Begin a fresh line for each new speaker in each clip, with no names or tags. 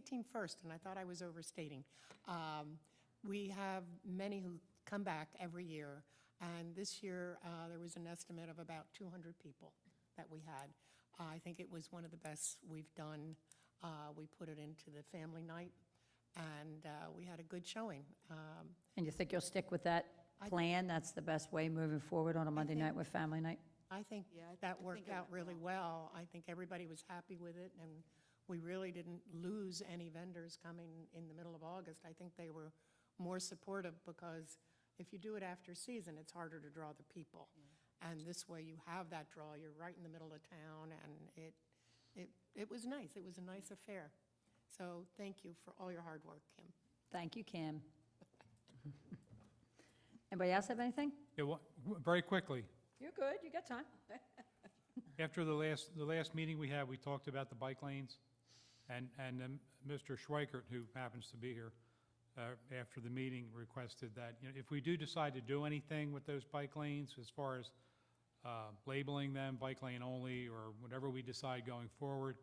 team first, and I thought I was overstating. Um, We have many who come back every year, and this year, uh, there was an estimate of about 200 people that we had. I think it was one of the best we've done. Uh, We put it into the family night, and uh, we had a good showing. Um,
And you think you'll stick with that plan? That's the best way moving forward on a Monday night with family night?
I think that worked out really well. I think everybody was happy with it, and we really didn't lose any vendors coming in the middle of August. I think they were more supportive, because if you do it after season, it's harder to draw the people. And this way, you have that draw, you're right in the middle of town, and it, it, it was nice, it was a nice affair. So thank you for all your hard work, Kim.
Thank you, Kim. Anybody else have anything?
Yeah, well, w- very quickly,
You're good, you got time.
after the last, the last meeting we had, we talked about the bike lanes, and, and um, Mr. Schweikert, who happens to be here, uh, after the meeting requested that, you know, if we do decide to do anything with those bike lanes, as far as uh, labeling them bike lane only, or whatever we decide going forward,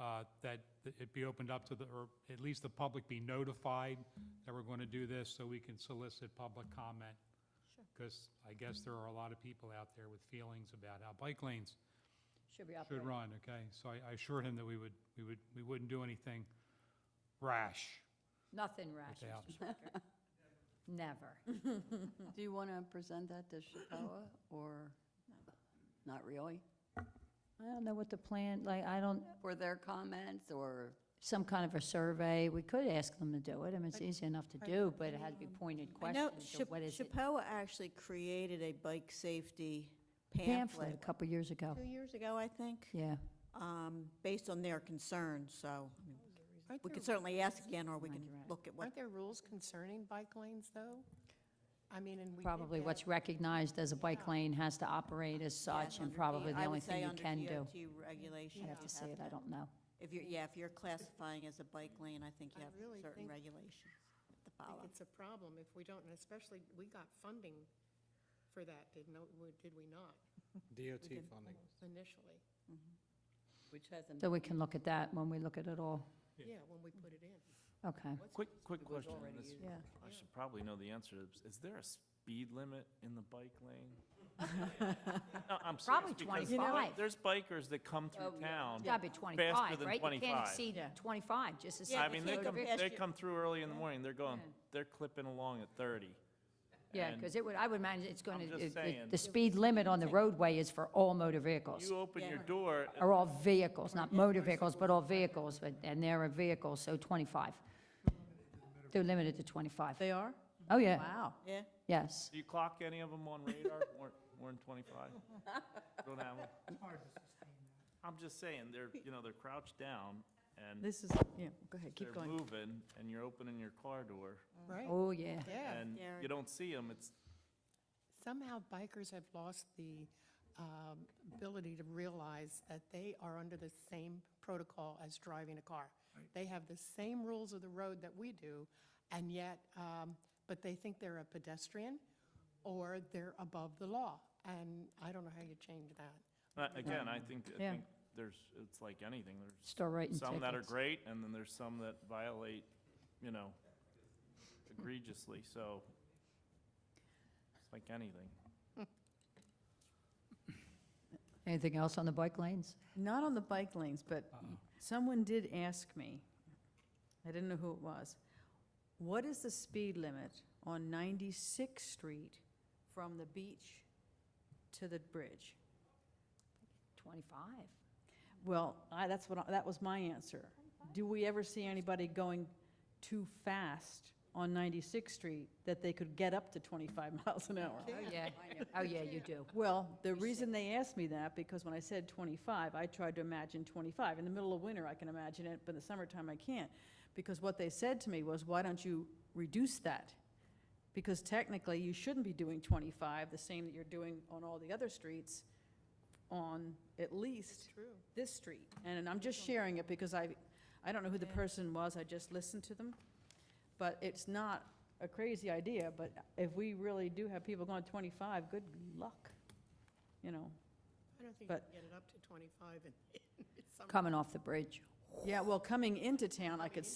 uh, that it be opened up to the, or at least the public be notified that we're going to do this, so we can solicit public comment. Because I guess there are a lot of people out there with feelings about how bike lanes
Should be up.
should run, okay? So I I assured him that we would, we would, we wouldn't do anything rash.
Nothing rash,
Without.
Mr. Schweikert. Never.
Do you want to present that to Chappella, or not really?
I don't know what the plan, like, I don't,
For their comments, or,
some kind of a survey, we could ask them to do it, I mean, it's easy enough to do, but it had to be pointed
I know
questions, so what is it?
Chappelle actually created a bike safety
Pamphlet a
pamphlet
couple years ago,
two years ago, I think,
yeah.
um, based on their concerns, so I mean,
Aren't
we
there-
could certainly ask again, or we
Mind
can
your eye.
look at what,
Aren't there rules concerning bike lanes, though? I mean, and we. did
Probably
get-
what's recognized as a bike lane has to operate as such, and probably the
I
only
would say
thing you
under
can do.
DOT regulation.
I have
you
to see it, I
to-
don't know.
If you're, yeah, if you're classifying as a bike lane, I think you
I
have
really
certain
think-
regulations to
I think
follow.
it's a problem if we don't, and especially, we got funding for that, didn't, we- did we not,
DOT funding.
initially?
which hasn't
So we can look at that when we look at it all,
Yeah, when we put it in.
okay.
Quick, quick question. on this.
Yeah.
I should probably know the answer. to this. Is there a speed limit in the bike lane? No, I'm serious.
Probably
because
25.
There's bikers that come through town.
It's gotta be
Faster
25,
than
right? You can't
25.
exceed 25, just as.
I mean, they
can't
come,
go past
they
you.
come through early in the morning. They're going,
Yeah.
they're clipping along at 30.
Yeah,
and
because it would, I would imagine it's going
I'm
to,
just
the
saying.
the speed limit on the roadway is for all motor vehicles.
You open your
Yeah.
door, uh, and
are all vehicles, not motor vehicles, but all vehicles, but- and they're a vehicle, so 25. They're limited to 25.
They are?
Oh, yeah,
Wow.
Yeah,
yes.
do you clock any of them on radar more, more than 25? Don't have 'em? I'm just saying, they're, you know, they're crouched down and
This is, yeah, go ahead, keep
they're
going.
moving and you're opening your car door
Right,
Oh, yeah.
yeah.
and
Yeah.
you don't see them. It's,
Somehow bikers have lost the um, ability to realize that they are under the same protocol as driving a car. They have the same rules of the road that we do, and yet, um, but they think they're a pedestrian or they're above the law. And I don't know how you change that.
Uh, Again, I think, I
Yeah.
think there's, it's like anything, there's
Start writing
some that are
tickets.
great, and then there's some that violate, you know, egregiously, so it's like anything.
Anything else on the bike lanes?
Not on the bike lanes, but someone did ask me, I didn't know who it was, what is the speed limit on 96th Street from the beach to the bridge?
25.
Well, I, that's what, I- that was my answer. Do we ever see anybody going too fast on 96th Street that they could get up to 25 miles an hour?
Oh, yeah. Oh, yeah, you do.
Well, the reason they asked me that, because when I said 25, I tried to imagine 25. In the middle of winter, I can imagine it, but in the summertime, I can't. Because what they said to me was, why don't you reduce that? Because technically, you shouldn't be doing 25, the same that you're doing on all the other streets, on at least
True.
this street. And I'm just sharing it because I, I don't know who the person was, I just listened to them. But it's not a crazy idea, but if we really do have people going 25, good luck, you know.
I don't think you
But-
can get it up to 25 and.
Coming off the bridge.
Yeah, well, coming into town, I could